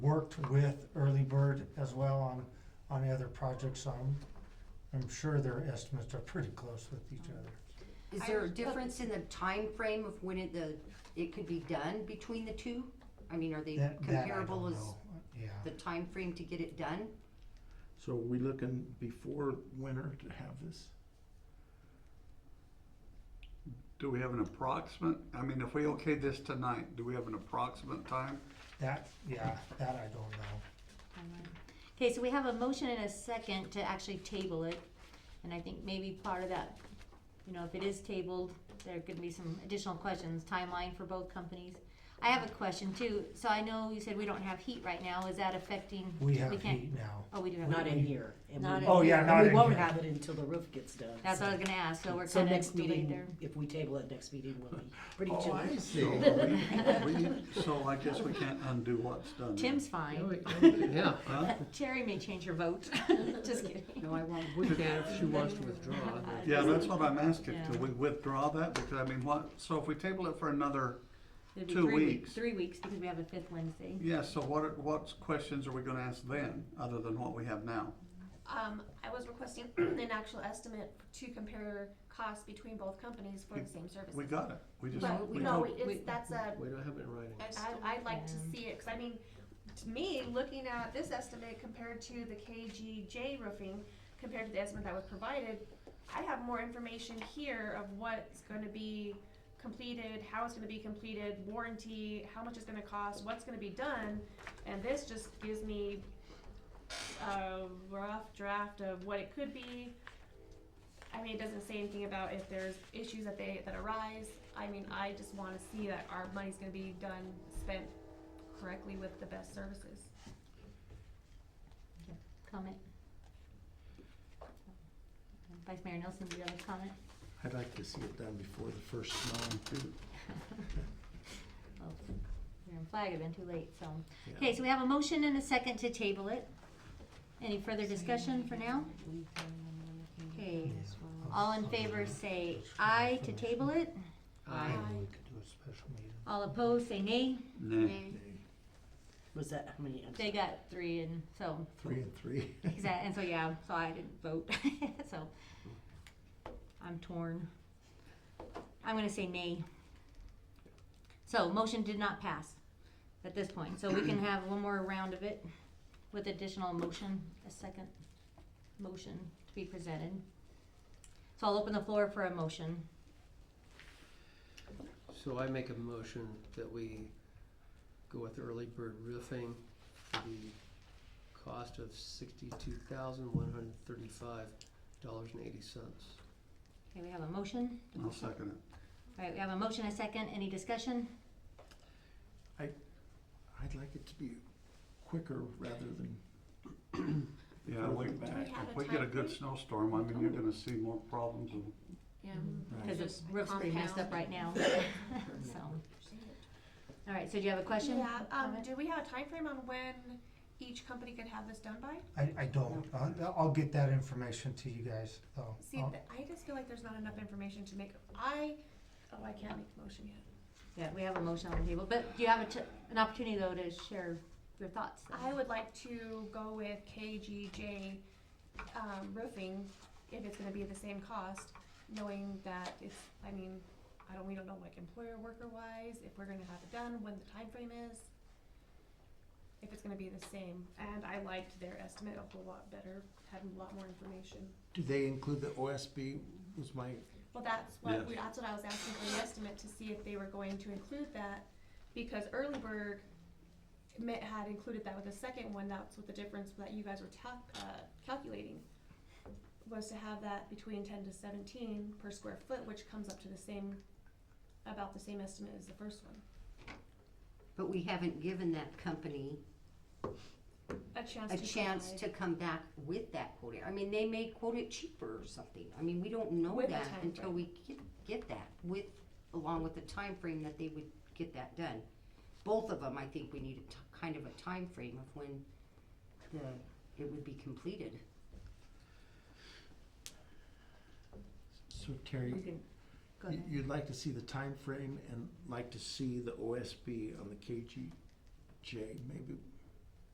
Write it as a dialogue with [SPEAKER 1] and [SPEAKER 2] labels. [SPEAKER 1] worked with Early Bird as well on, on other projects, um, I'm sure their estimates are pretty close with each other.
[SPEAKER 2] Is
[SPEAKER 3] I
[SPEAKER 2] there a
[SPEAKER 3] was-
[SPEAKER 2] difference in the time frame of when it, the, it could be done between the two? I mean, are they
[SPEAKER 1] That, that I
[SPEAKER 2] comparable
[SPEAKER 1] don't
[SPEAKER 2] as
[SPEAKER 1] know.
[SPEAKER 2] the
[SPEAKER 1] Yeah,
[SPEAKER 2] time frame to get it done?
[SPEAKER 4] So we looking before winter to have this?
[SPEAKER 5] Do we have an approximate, I mean, if we okay this tonight, do we have an approximate time?
[SPEAKER 1] that, yeah, that I don't know.
[SPEAKER 3] Okay, so we have a motion and a second to actually table it, and I think maybe part of that, you know, if it is tabled, there could be some additional questions, timeline for both companies. I have a question too, so I know you said we don't have heat right now, is that affecting?
[SPEAKER 1] We have
[SPEAKER 3] can't-
[SPEAKER 1] heat now.
[SPEAKER 3] Oh, we do have.
[SPEAKER 6] Not
[SPEAKER 3] heat.
[SPEAKER 6] in here. and
[SPEAKER 3] Not
[SPEAKER 6] we-
[SPEAKER 3] in Oh, yeah,
[SPEAKER 1] here. not
[SPEAKER 6] and
[SPEAKER 1] in
[SPEAKER 6] We won't
[SPEAKER 1] here.
[SPEAKER 6] have it until the roof gets done.
[SPEAKER 3] That's what I
[SPEAKER 6] so-
[SPEAKER 3] was gonna ask, so we're
[SPEAKER 6] So
[SPEAKER 3] kinda
[SPEAKER 6] next
[SPEAKER 3] delayed there.
[SPEAKER 6] meeting, if we table it, next meeting will be pretty
[SPEAKER 4] Oh, I
[SPEAKER 6] chilly.
[SPEAKER 4] see.
[SPEAKER 5] So we- we- So I guess we can't undo what's done.
[SPEAKER 3] Tim's fine,
[SPEAKER 4] Yeah.
[SPEAKER 5] Huh?
[SPEAKER 3] Terry may change her vote, just kidding.
[SPEAKER 7] No, I won't, we can't if she wants to withdraw.
[SPEAKER 5] Yeah, that's what I'm asking,
[SPEAKER 3] Yeah.
[SPEAKER 5] do we withdraw that? Because I mean, what, so if we table it for another,
[SPEAKER 3] It'd be
[SPEAKER 5] Two
[SPEAKER 3] three
[SPEAKER 5] weeks.
[SPEAKER 3] Three weeks, because we have a fifth Wednesday.
[SPEAKER 5] yeah, so what, what questions are we gonna ask then, other than what we have now?
[SPEAKER 8] Um, I was requesting an actual estimate to compare costs between both companies for the same services.
[SPEAKER 5] We got it, we just,
[SPEAKER 8] But,
[SPEAKER 5] we
[SPEAKER 8] no,
[SPEAKER 5] don't,
[SPEAKER 8] it's, that's a,
[SPEAKER 7] We don't have it in writing.
[SPEAKER 8] I, I'd like to see it, cause I mean, to me, looking at this estimate compared to the KGJ roofing, compared to the estimate that was provided, I have more information here of what's gonna be completed, how it's gonna be completed, warranty, how much it's gonna cost, what's gonna be done, and this just gives me a rough draft of what it could be. I mean, it doesn't say anything about if there's issues that they, that arise. I mean, I just wanna see that our money's gonna be done, spent correctly with the best services.
[SPEAKER 3] Comment? Vice Mayor Nelson, do you have a comment?
[SPEAKER 4] I'd like to see it done before the first snow too.
[SPEAKER 3] Well, Oh, You're in flag, I've been too late, so.
[SPEAKER 4] Yeah.
[SPEAKER 3] Okay, so we have a motion and a second to table it. Any further discussion for now? Okay, all in favor say aye to table it.
[SPEAKER 7] Aye.
[SPEAKER 1] We could do a special meeting.
[SPEAKER 3] All opposed say nay.
[SPEAKER 5] nah.
[SPEAKER 6] Was that how many? I'm
[SPEAKER 3] They
[SPEAKER 6] sorry.
[SPEAKER 3] got three and so,
[SPEAKER 4] Three and three.
[SPEAKER 3] exact- and so, yeah, so I didn't vote, so. I'm torn. I'm gonna say nay. So motion did not pass at this point, so we can have one more round of it with additional motion, a second motion to be presented. So I'll open the floor for a motion.
[SPEAKER 7] So I make a motion that we go with early bird roofing for the cost of sixty-two thousand, one hundred and thirty-five dollars and eighty cents.
[SPEAKER 3] Okay, we have a motion.
[SPEAKER 5] I'll second it.
[SPEAKER 3] All right, we have a motion, a second. Any discussion?
[SPEAKER 4] I'd like it to be quicker rather than,
[SPEAKER 5] Yeah, we,
[SPEAKER 4] Do we
[SPEAKER 8] have
[SPEAKER 5] if
[SPEAKER 8] a
[SPEAKER 5] we get a
[SPEAKER 8] time
[SPEAKER 5] good
[SPEAKER 8] frame?
[SPEAKER 5] snowstorm, I mean, you're gonna see more problems than
[SPEAKER 8] Yeah.
[SPEAKER 3] Because
[SPEAKER 8] Just
[SPEAKER 3] the roof's pretty messed up right now, so. All right, so do you have a question?
[SPEAKER 8] Yeah, um,
[SPEAKER 3] Comment?
[SPEAKER 8] do we have a time frame on when each company could have this done by?
[SPEAKER 1] I, I don't, I'll, I'll get that information to you guys, though.
[SPEAKER 8] See,
[SPEAKER 1] I'll-
[SPEAKER 8] th- I just feel like there's not enough information to make, I, oh, I can't make a motion yet.
[SPEAKER 3] Yeah, we have a motion on the table, but do you have a, t- an opportunity though to share your thoughts? then?
[SPEAKER 8] I would like to go with KGJ um, roofing if it's gonna be the same cost, knowing that it's, I mean, I don't, we don't know like employer worker wise, if we're gonna have it done, when the time frame is. If it's gonna be the same, and I liked their estimate a whole lot better, had a lot more information.
[SPEAKER 4] do they include the OSB was my,
[SPEAKER 8] Well, that's what, we- that's what I was asking for the estimate, to see if they were going to include that, because Erlenberg me- had included that with the second one, that's what the difference that you guys were tal- uh, calculating, was to have that between ten to seventeen per square foot, which comes up to the same, about the same estimate as the first one.
[SPEAKER 9] But we haven't given that company
[SPEAKER 8] A chance
[SPEAKER 9] a
[SPEAKER 8] to.
[SPEAKER 9] chance to
[SPEAKER 8] provide
[SPEAKER 9] come back with that quote. I mean, they may quote it cheaper or something. I mean, we don't know
[SPEAKER 8] With the
[SPEAKER 9] that
[SPEAKER 8] time
[SPEAKER 9] until
[SPEAKER 8] frame.
[SPEAKER 9] we get, get that with, along with the time frame that they would get that done. Both of them, I think we need a t- kind of a time frame of when the, it would be completed.
[SPEAKER 4] so Terry,
[SPEAKER 3] You can- Go
[SPEAKER 4] you-
[SPEAKER 3] ahead.
[SPEAKER 4] you'd like to see the time frame and like to see the OSB on the KGJ maybe